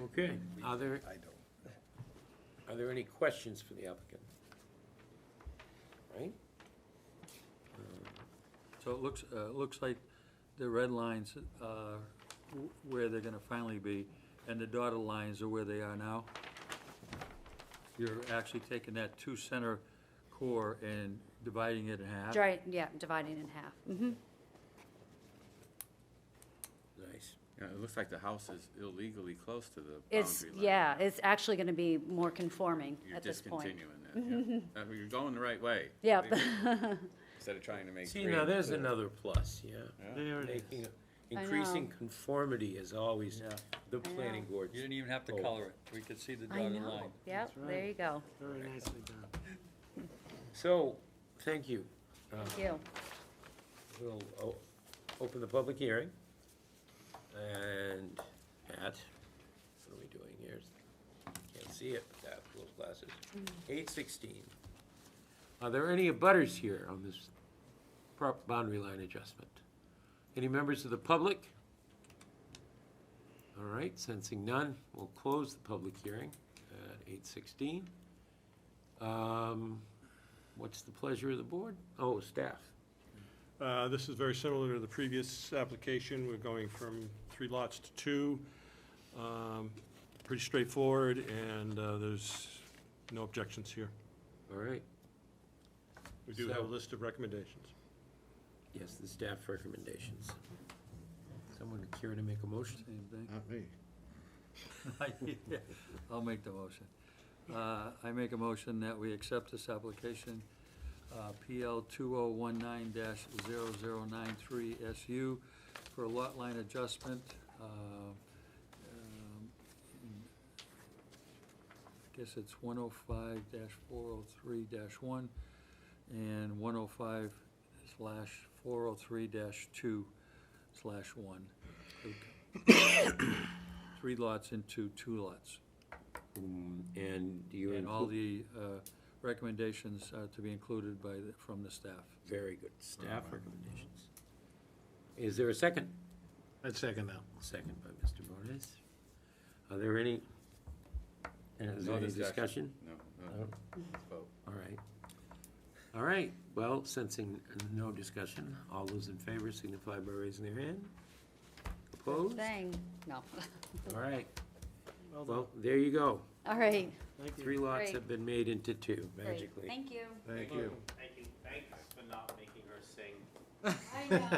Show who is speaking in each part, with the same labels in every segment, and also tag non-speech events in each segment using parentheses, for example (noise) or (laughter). Speaker 1: Okay, are there,
Speaker 2: I don't.
Speaker 1: are there any questions for the applicant? Right?
Speaker 3: So it looks, uh, it looks like the red lines are where they're gonna finally be, and the dotted lines are where they are now. You're actually taking that two center core and dividing it in half.
Speaker 4: Right, yeah, dividing in half. Mhm.
Speaker 1: Nice.
Speaker 5: Yeah, it looks like the house is illegally close to the
Speaker 4: It's,
Speaker 5: boundary line.
Speaker 4: yeah, it's actually going to be more conforming
Speaker 5: You're
Speaker 4: at this point.
Speaker 5: discontinuing that,
Speaker 4: (laughs)
Speaker 5: yeah. Uh, You're going the right way.
Speaker 4: Yep.
Speaker 5: Believe me.
Speaker 4: (laughs)
Speaker 5: Instead of trying to make
Speaker 1: See,
Speaker 5: three.
Speaker 1: now
Speaker 5: and
Speaker 1: there's
Speaker 5: four.
Speaker 1: another plus, yeah.
Speaker 5: Yeah.
Speaker 6: There it is.
Speaker 1: Making,
Speaker 4: I
Speaker 1: increasing
Speaker 4: know.
Speaker 1: conformity is always
Speaker 3: Yeah.
Speaker 1: the planning board's.
Speaker 3: You didn't even have to
Speaker 1: Oh.
Speaker 3: color it, we could see the
Speaker 4: I
Speaker 3: dotted
Speaker 4: know,
Speaker 3: line.
Speaker 4: yep,
Speaker 6: That's
Speaker 4: there
Speaker 6: right.
Speaker 4: you go.
Speaker 6: Very nicely done.
Speaker 1: So, thank you. Uh,
Speaker 4: Thank you.
Speaker 1: We'll o- open the public hearing. And at, what are we doing here? Can't see it, but that, those glasses. Eight sixteen. Are there any abutters here on this prop, boundary line adjustment? Any members of the public? All right, sensing none, we'll close the public hearing at eight sixteen. Um, what's the pleasure of the board? Oh, staff.
Speaker 7: Uh, This is very similar to the previous application. We're going from three lots to two. Um, Pretty straightforward, and uh, there's no objections here.
Speaker 1: All right.
Speaker 7: We do have a
Speaker 1: So-
Speaker 7: list of recommendations.
Speaker 1: Yes, the staff recommendations. Someone care to make a motion?
Speaker 3: Same thing.
Speaker 2: Not me.
Speaker 3: (laughs) I'll make the motion. Uh, I make a motion that we accept this application, uh, PL 2019-0093SU for a lot line adjustment. uh, um, I guess it's 105-403-1 and 105 slash 403-2 slash 1. Three lots into two lots.
Speaker 1: Mm, And do you
Speaker 3: And all
Speaker 1: include,
Speaker 3: the uh, recommendations are to be included by, the- from the staff.
Speaker 1: very good, staff recommendations. Is there a second?
Speaker 6: I'd second that.
Speaker 1: Second by Mr. Bonas. Are there any, is there
Speaker 5: No
Speaker 1: any discussion?
Speaker 5: No,
Speaker 1: No.
Speaker 5: no. Let's vote.
Speaker 1: All right. All right, well, sensing no discussion, all those in favor signify by raising their hand. Opposed?
Speaker 4: Thing, no. (laughs)
Speaker 1: All right,
Speaker 6: Well done.
Speaker 1: well, there you go.
Speaker 4: All right,
Speaker 6: Thank you.
Speaker 1: Three lots
Speaker 4: Great.
Speaker 1: have been made into two,
Speaker 4: great.
Speaker 1: magically.
Speaker 4: Thank you.
Speaker 2: Thank you.
Speaker 8: Thank you, thanks for not making her sing.
Speaker 4: I know.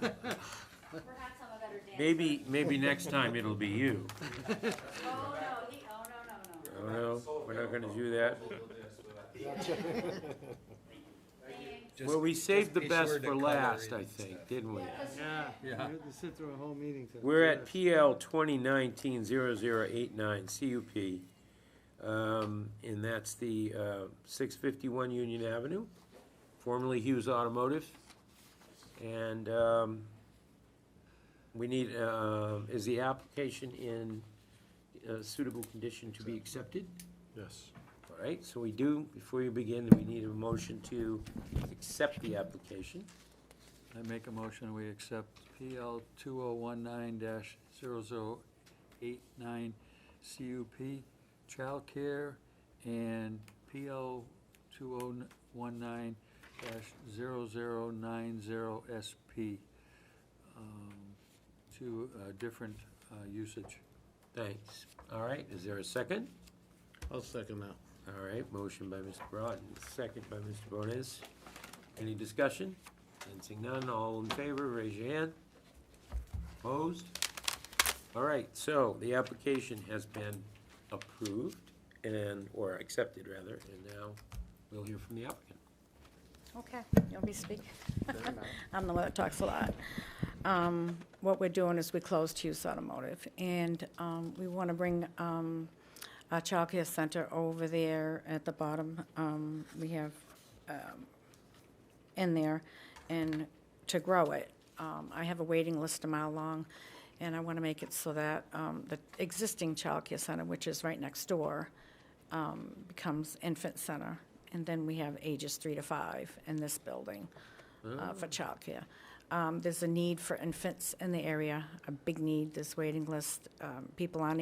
Speaker 4: Perhaps I'm a better dancer.
Speaker 1: Maybe, maybe next time it'll be you.
Speaker 4: Oh, no, he, oh, no, no, no.
Speaker 1: Oh, no, we're not gonna do that.
Speaker 4: Thanks.
Speaker 1: Well, we saved the
Speaker 5: just be sure
Speaker 1: best
Speaker 5: to
Speaker 1: for
Speaker 5: color
Speaker 1: last,
Speaker 5: it
Speaker 1: I
Speaker 5: and
Speaker 1: think,
Speaker 5: stuff.
Speaker 1: didn't we?
Speaker 6: Yeah.
Speaker 3: Yeah.
Speaker 6: You had to sit through a whole meeting to.
Speaker 1: We're
Speaker 6: do
Speaker 1: at
Speaker 6: this.
Speaker 1: PL twenty nineteen zero zero eight nine, CUP. Um, and that's the, uh, six fifty-one Union Avenue, formerly Hughes Automotive. And, um, we need, uh, is the application in uh, suitable condition to be accepted?
Speaker 7: Yes.
Speaker 1: All right, so we do, before you begin, we need a motion to accept the application.
Speaker 3: I make a motion, we accept PL 2019-0089 CUP childcare and PL 2019-0090 SP um, to uh, different uh, usage.
Speaker 1: Thanks. All right, is there a second?
Speaker 6: I'll second that.
Speaker 1: All right, motion by Mr. Broughton, second by Mr. Bonas. Any discussion? Sensing none, all in favor, raise your hand. Opposed? All right, so the application has been approved and, or accepted rather, and now we'll hear from the applicant.
Speaker 9: Okay, you want me to speak? (laughs) I'm the one that talks a lot. Um, What we're doing is we closed Hughes Automotive, and um, we want to bring um, our childcare center over there at the bottom. Um, We have um, in there, and to grow it. Um, I have a waiting list a mile long, and I want to make it so that um, the existing childcare center, which is right next door, um, becomes infant center, and then we have ages three to five in this building uh, for childcare. Um, There's a need for infants in the area, a big need, There's waiting list, um, people on